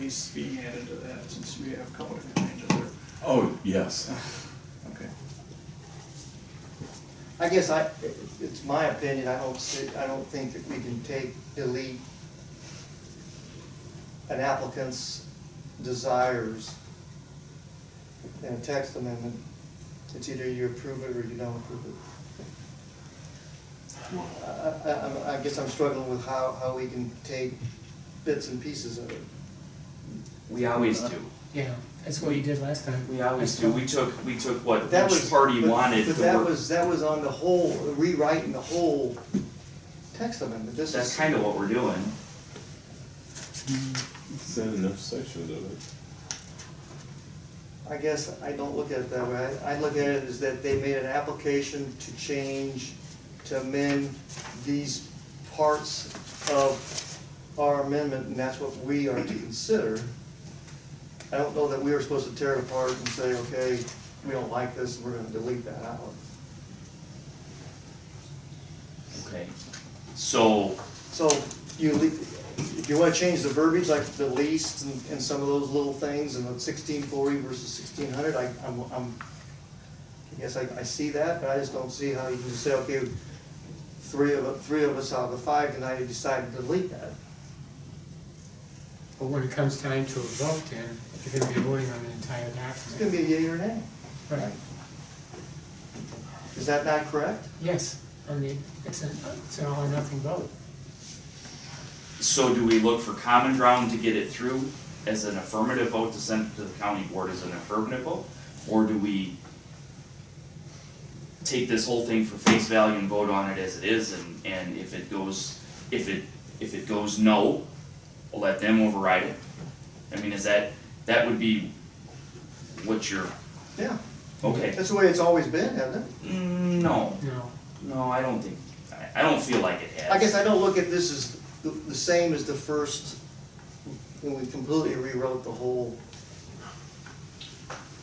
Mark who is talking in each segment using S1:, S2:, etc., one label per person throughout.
S1: needs to be added to that, since we have a couple different ranges there.
S2: Oh, yes. Okay.
S3: I guess I, it- it's my opinion, I don't see, I don't think that we can take, delete an applicant's desires in a text amendment. It's either you approve it or you don't approve it. I, I, I'm- I guess I'm struggling with how, how we can take bits and pieces of it.
S4: We always do.
S5: Yeah, that's what you did last time.
S4: We always
S5: That's
S4: do.
S5: fine.
S4: We took, we took what
S3: That was-
S4: each party
S3: but-
S4: wanted.
S3: But
S4: to
S3: that
S4: work-
S3: was, that was on the whole, rewriting the whole text amendment, this is.
S4: That's kind of what we're doing.
S2: Send enough sections of it.
S3: I guess I don't look at it that way. I I look at it as that they made an application to change, to amend these parts of our amendment, and that's what we are to consider. I don't know that we are supposed to tear it apart and say, okay, we don't like this, we're gonna delete that out.
S4: Okay. So,
S3: So you, le- if you wanna change the verbiage, like the least and, and some of those little things, and the sixteen forty versus sixteen hundred, I, I'm, I'm, I guess I, I see that, but I just don't see how you can just say, okay, three of, three of us out of the five tonight have decided to delete that.
S5: But when it comes time to a vote then, you're gonna be voting on the entire
S3: It's gonna
S5: document.
S3: be a yea or nay.
S5: Right,
S3: Is that not correct?
S5: yes, I mean, it's an, it's an all or nothing vote.
S4: so do we look for common ground to get it through as an affirmative vote to send it to the county board as an affirmative vote? Or do we take this whole thing for face value and vote on it as it is and, and if it goes, if it, if it goes no, we'll let them override it? I mean, is that, that would be what your,
S3: Yeah,
S4: okay.
S3: that's the way it's always been, hasn't it?
S4: Mm, no,
S5: No,
S4: no, I don't think, I, I don't feel like it has.
S3: I guess I don't look at this as the, the same as the first, when we completely rewrote the whole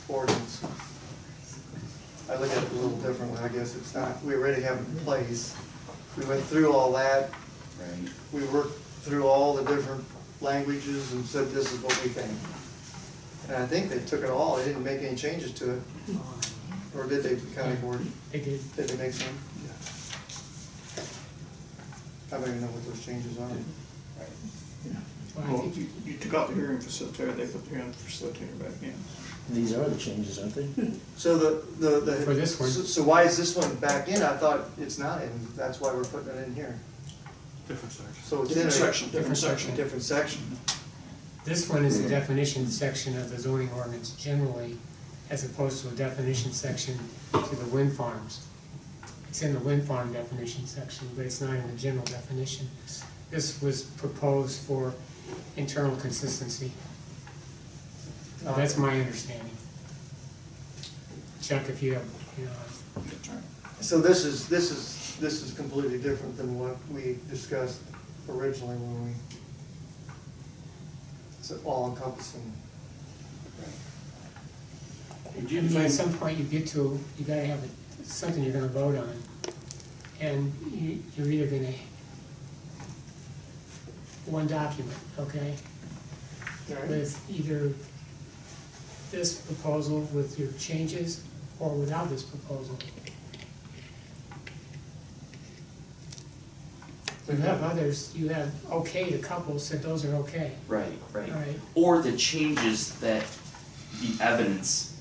S3: ordinance. I look at it a little differently, I guess it's not, we already have it in place. We went through all that,
S4: Right.
S3: we worked through all the different languages and said, this is what we think. And I think they took it all, they didn't make any changes to it, or did they, the county board?
S5: they did.
S3: Did they make some? I don't even know what those changes are.
S5: Well, I
S1: Well,
S5: think
S1: you, you took out the hearing facilitator, they put the hearing facilitator back in.
S6: These are the changes, aren't they?
S3: So the, the, the.
S5: For this one.
S3: So so why is this one back in? I thought it's not in, that's why we're putting it in here.
S7: Different section.
S3: So it's in
S1: Different
S3: a
S1: section, different
S5: Different
S1: section.
S3: different section.
S5: This one is a definition section of the zoning ordinance generally, as opposed to a definition section to the wind farms. It's in the wind farm definition section, but it's not in the general definition. This was proposed for internal consistency. Uh, That's my understanding. Chuck, if you have, you know,
S1: That's right.
S3: So this is, this is, this is completely different than what we discussed originally when we, it's all encompassing.
S5: And At some point you get to, you gotta have a- something you're gonna vote on. And you, you're either gonna, one document, okay? With either this proposal with your changes or without this proposal. You have others, you have okay to couples, said those are okay,
S4: Right, right.
S5: alright?
S4: Or the changes that the evidence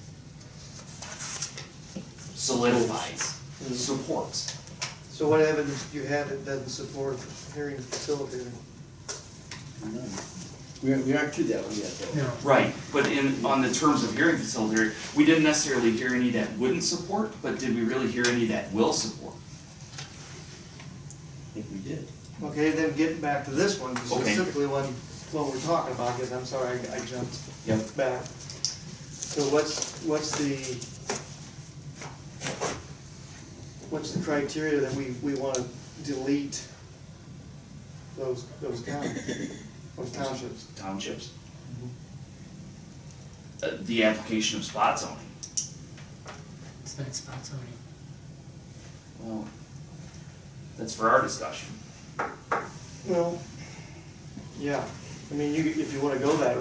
S4: solidifies, supports.
S3: So what evidence do you have that doesn't support hearing facilitator?
S6: We aren't, we aren't to that one yet, though.
S5: No,
S4: Right, but in, on the terms of hearing facilitator, we didn't necessarily hear any that wouldn't support, but did we really hear any that will support?
S6: I think we did.
S3: Okay, then getting back to this one,
S4: Okay.
S3: specifically one, what we're talking about, because I'm sorry, I I jumped
S4: Yep.
S3: back. So what's, what's the, what's the criteria that we, we want to delete those, those counties, those townships?
S4: Townships.
S3: Mm-hmm.
S4: Uh, the application of spot zoning.
S5: it's not spot zoning.
S4: Well, that's for our discussion.
S3: Well, yeah, I mean, you, if you want to go that